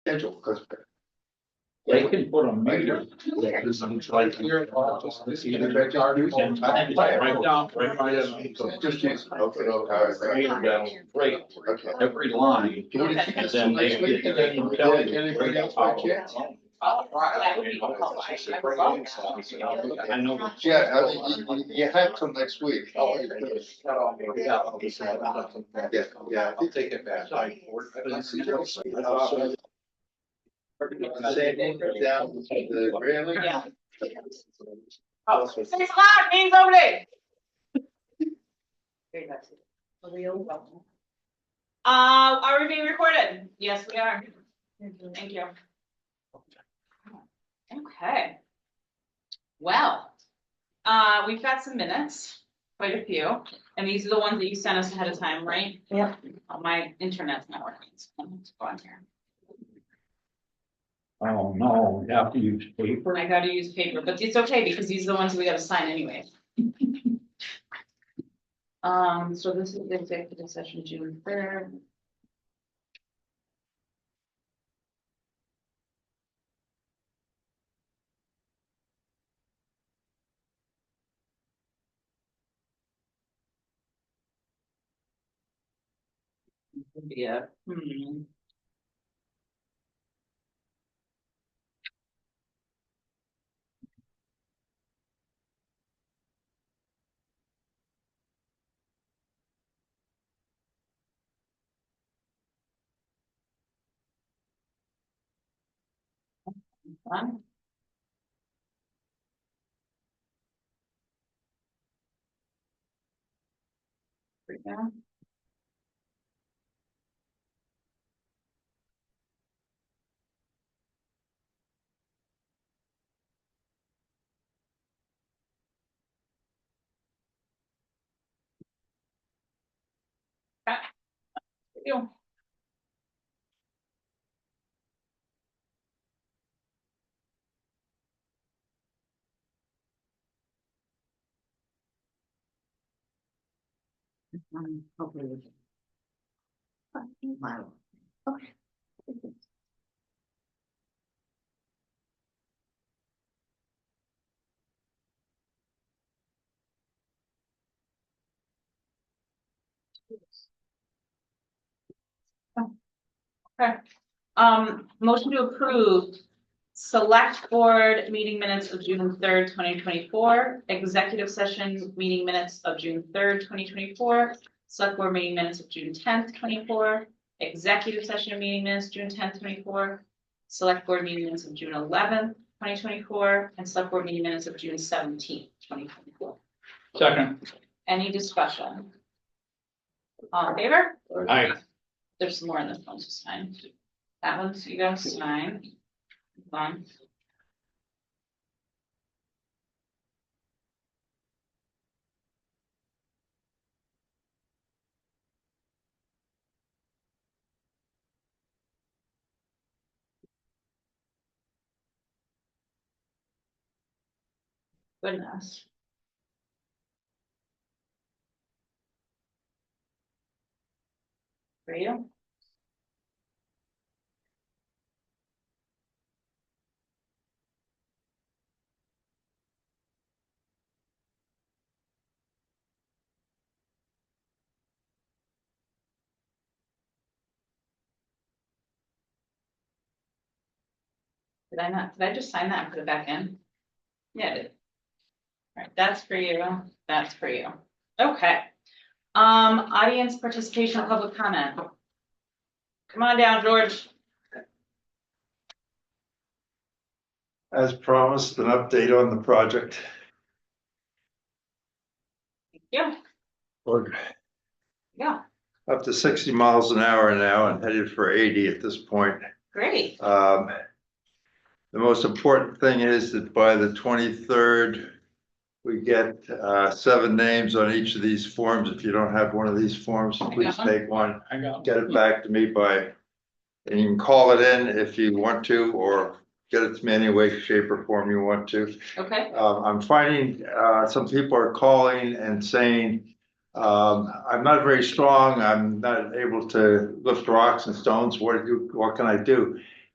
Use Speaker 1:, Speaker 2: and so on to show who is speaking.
Speaker 1: schedule, because.
Speaker 2: They can put a
Speaker 1: Like,
Speaker 2: meter.
Speaker 1: yeah, there's some like here, uh, just this, in the backyard, you can-
Speaker 2: Right down, right by us.
Speaker 1: Just use- okay, okay,
Speaker 2: Meter down, right,
Speaker 1: okay.
Speaker 2: every line, and then they.
Speaker 1: And then- and then bring out my
Speaker 2: Oh.
Speaker 1: kids.
Speaker 2: I know.
Speaker 1: Yeah, I mean, you, you- you have till next week. Yeah, yeah.
Speaker 3: I'll take it back.
Speaker 4: Yeah.
Speaker 5: Six o'clock, meeting's over there. Uh, are we being recorded? Yes, we are. Thank you. Okay. Well, uh, we've got some minutes, quite a few, and these are the ones that you sent us ahead of time, right?
Speaker 4: Yeah.
Speaker 5: Oh, My internet's not working, so I'm just going here.
Speaker 2: Oh, no, you have to use paper.
Speaker 5: I gotta use paper, but it's okay because these are the ones we gotta sign anyway. Um, so this is the executive session June third. Yeah. Hmm. Fun. There we go. Ah. Ew. Um, hopefully we can. Wow. Okay. Okay, um, motion to approve select board meeting minutes of June third, twenty twenty-four, executive session meeting minutes of June third, twenty twenty-four, Select board meeting minutes of June tenth, twenty-four, executive session meeting minutes, June tenth, twenty-four. Select board meeting minutes of June eleventh, twenty twenty-four, and select board meeting minutes of June seventeenth, twenty twenty-four.
Speaker 2: Second,
Speaker 5: Any discussion? All in favor?
Speaker 2: I,
Speaker 5: There's more in this one, just sign. That one's, you guys sign. Hold on. Goodness. For you? Did I not, did I just sign that and put it back in? Yeah. I did. All right, that's for you, that's for you. Okay. Um, audience participation, public comment. Come on down, George.
Speaker 6: As promised, an update on the project.
Speaker 5: Yeah,
Speaker 6: We're
Speaker 5: yeah,
Speaker 6: up to sixty miles an hour now and headed for eighty at this point.
Speaker 5: great.
Speaker 6: Um, the most important thing is that by the twenty-third, we get, uh, seven names on each of these forms. If you don't have one of these forms, please
Speaker 5: one.
Speaker 6: take one.
Speaker 2: I got.
Speaker 6: get it back to me by, and you can call it in if you want to, or get it to me any way, shape or form you want to.
Speaker 5: Okay,
Speaker 6: Um, I'm finding, uh, some people are calling and saying, um, I'm not very strong, I'm not able to lift rocks and stones, what do you, what can I do?